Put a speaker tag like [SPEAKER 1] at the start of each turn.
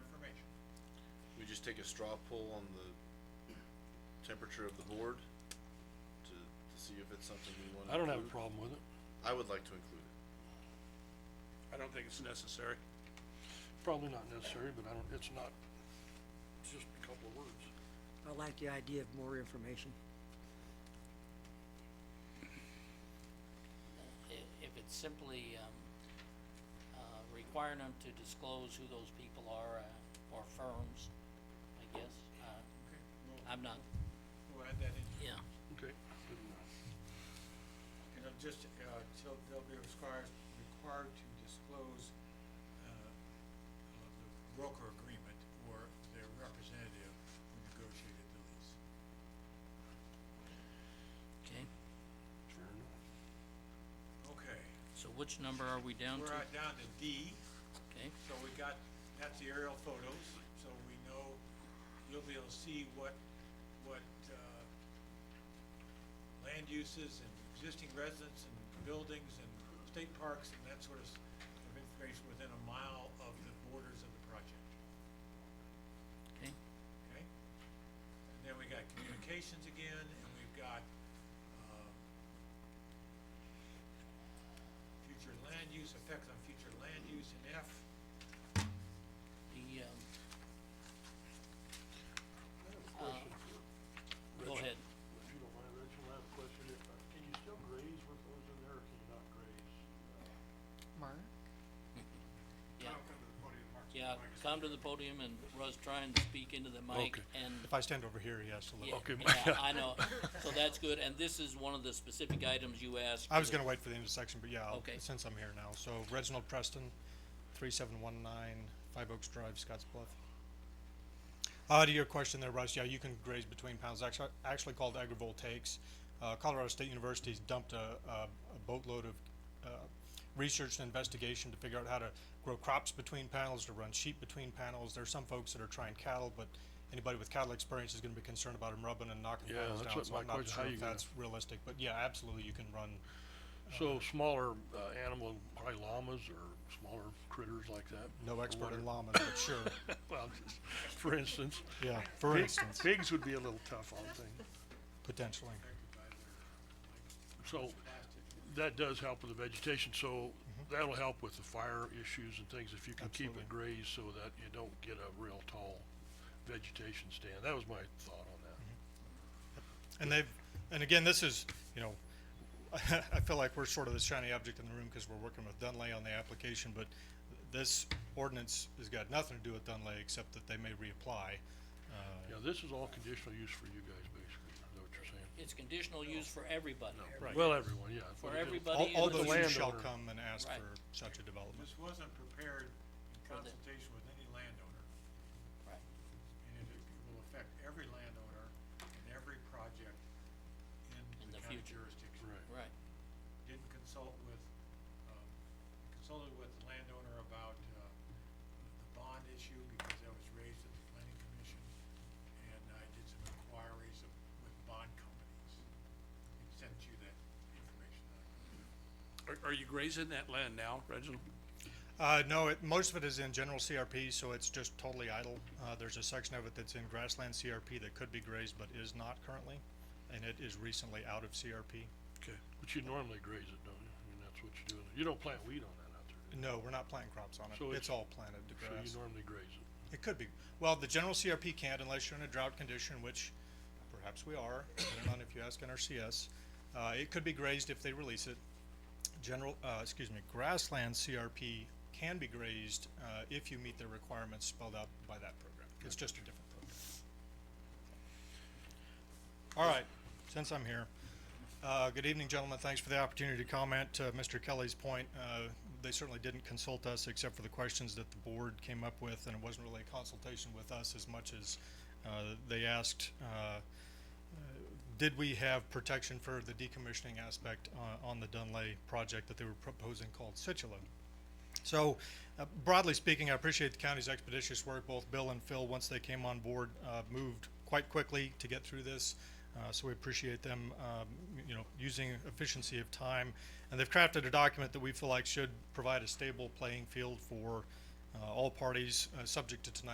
[SPEAKER 1] just take a straw poll on the temperature of the board to, to see if it's something we wanna
[SPEAKER 2] I don't have a
[SPEAKER 1] include?
[SPEAKER 2] problem with it.
[SPEAKER 1] I would like to include it.
[SPEAKER 3] I don't think it's necessary.
[SPEAKER 2] Probably not necessary, but I don't, it's not, it's just a couple of words.
[SPEAKER 4] I like the idea of more information.
[SPEAKER 5] if, if it's simply, um, uh, requiring them to disclose who those people are, uh, or firms, I guess, uh, I'm not,
[SPEAKER 3] We'll add that in,
[SPEAKER 5] yeah,
[SPEAKER 2] Okay. good enough.
[SPEAKER 6] You know, just, uh, till they'll be required, required to disclose, uh, uh, the broker agreement or their representative who negotiated the lease.
[SPEAKER 5] okay,
[SPEAKER 2] Fair enough.
[SPEAKER 6] Okay,
[SPEAKER 5] so which number are we down to?
[SPEAKER 6] we're at- down to D,
[SPEAKER 5] Okay,
[SPEAKER 6] so we got, that's the aerial photos, so we know, you'll be able to see what, what, uh, land uses and existing residents and buildings and state parks and that sort of, s- of information within a mile of the borders of the project.
[SPEAKER 5] okay,
[SPEAKER 6] okay? And then we got communications again, and we've got, um, future land use, effects on future land use in F.
[SPEAKER 5] the,
[SPEAKER 2] I have a
[SPEAKER 5] um,
[SPEAKER 2] question for,
[SPEAKER 5] go
[SPEAKER 2] Rich.
[SPEAKER 5] ahead,
[SPEAKER 2] if you don't mind, Rachel, I have a question. If, uh, Can you still graze with those in there or can you not graze?
[SPEAKER 7] Mark?
[SPEAKER 5] yeah. Yeah, come to the podium and Russ trying to speak into the mic
[SPEAKER 2] Okay.
[SPEAKER 5] and,
[SPEAKER 8] If I stand over here, yes, a
[SPEAKER 5] yeah,
[SPEAKER 8] little.
[SPEAKER 2] Okay,
[SPEAKER 5] yeah,
[SPEAKER 2] yeah.
[SPEAKER 5] I know, so that's good, and this is one of the specific items you asked.
[SPEAKER 8] I was
[SPEAKER 5] for the-
[SPEAKER 8] gonna wait for the intersection, but yeah, I'll-
[SPEAKER 5] Okay.
[SPEAKER 8] since I'm here now, so Reginald Preston, three seven one nine, Five Oaks Drive, Scotts Bluff. Uh, to your question there, Russ, yeah, you can graze between pounds, actually, actually called agrivoltaics. Uh, Colorado State University's dumped a, a a boatload of, uh, research and investigation to figure out how to grow crops between panels, to run sheep between panels. There are some folks that are trying cattle, but anybody with cattle experience is gonna be concerned about them rubbing and knocking
[SPEAKER 2] Yeah,
[SPEAKER 8] panels
[SPEAKER 2] that's
[SPEAKER 8] down,
[SPEAKER 2] what
[SPEAKER 8] so I'm
[SPEAKER 2] my
[SPEAKER 8] not
[SPEAKER 2] question-
[SPEAKER 8] sure
[SPEAKER 2] how you
[SPEAKER 8] if
[SPEAKER 2] gonna-
[SPEAKER 8] that's realistic, but yeah, absolutely, you can run
[SPEAKER 2] So smaller, uh, animal, probably llamas or smaller critters like that.
[SPEAKER 8] No
[SPEAKER 2] or
[SPEAKER 8] expert in
[SPEAKER 2] whatever.
[SPEAKER 8] llamas, but sure.
[SPEAKER 2] Well, just, for instance.
[SPEAKER 8] Yeah, for
[SPEAKER 2] pig-
[SPEAKER 8] instance,
[SPEAKER 2] Pigs would be a little tough on things.
[SPEAKER 8] potentially.
[SPEAKER 2] So that does help with the vegetation, so that'll help with the fire issues and things if you can keep
[SPEAKER 8] Absolutely.
[SPEAKER 2] it grazed so that you don't get a real tall vegetation stand. That was my thought on
[SPEAKER 8] Mm-hmm.
[SPEAKER 2] that.
[SPEAKER 8] And they've, and again, this is, you know, I feel like we're sort of the shiny object in the room because we're working with Dunlay on the application, but this ordinance has got nothing to do with Dunlay except that they may reapply. Uh,
[SPEAKER 2] Yeah, this is all conditional use for you guys, basically, is that what you're saying?
[SPEAKER 5] It's conditional use for everybody.
[SPEAKER 8] Right.
[SPEAKER 2] Well, everyone, yeah.
[SPEAKER 5] For
[SPEAKER 2] but it-
[SPEAKER 5] everybody.
[SPEAKER 8] All,
[SPEAKER 5] Buddy
[SPEAKER 8] all
[SPEAKER 5] and
[SPEAKER 8] those
[SPEAKER 2] the
[SPEAKER 8] who shall
[SPEAKER 2] landowner.
[SPEAKER 8] come and ask
[SPEAKER 5] Right.
[SPEAKER 8] for such a development.
[SPEAKER 6] This wasn't prepared in consultation with any landowner,
[SPEAKER 5] Right.
[SPEAKER 6] and it it will affect every landowner and every project in the
[SPEAKER 5] In the
[SPEAKER 6] county
[SPEAKER 5] future.
[SPEAKER 6] jurisdiction.
[SPEAKER 2] Right.
[SPEAKER 5] Right,
[SPEAKER 6] Didn't consult with, um, consulted with the landowner about, uh, the bond issue because that was raised at the planning commission. And I did some inquiries of, with bond companies and sent you that information.
[SPEAKER 3] Are, are you grazing that land now, Reginald?
[SPEAKER 8] Uh, no, it, most of it is in general CRP, so it's just totally idle. Uh, there's a section of it that's in grassland CRP that could be grazed but is not currently, and it is recently out of CRP.
[SPEAKER 2] Okay, but you normally graze it, don't you? I mean, that's what you do. You don't plant weed on that out there, do
[SPEAKER 8] No, we're not planting crops on
[SPEAKER 2] So it's-
[SPEAKER 8] it. It's all planted to
[SPEAKER 2] you? So
[SPEAKER 8] grass.
[SPEAKER 2] you normally graze it.
[SPEAKER 8] It could be. Well, the general CRP can't unless you're in a drought condition, which perhaps we are, depending on if you ask NRCS. Uh, it could be grazed if they release it. General, uh, excuse me, grassland CRP can be grazed, uh, if you meet the requirements spelled out by that program. It's just a different program. All right, since I'm here, uh, good evening, gentlemen. Thanks for the opportunity to comment. To Mr. Kelly's point, uh, they certainly didn't consult us except for the questions that the board came up with, and it wasn't really a consultation with us as much as, uh, they asked, uh, did we have protection for the decommissioning aspect, uh, on the Dunlay project that they were proposing called Situla? So, uh, broadly speaking, I appreciate the county's expeditious work. Both Bill and Phil, once they came on board, uh, moved quite quickly to get through this. Uh, so we appreciate them, um, you know, using efficiency of time. And they've crafted a document that we feel like should provide a stable playing field for, uh, all parties, uh, subject to tonight's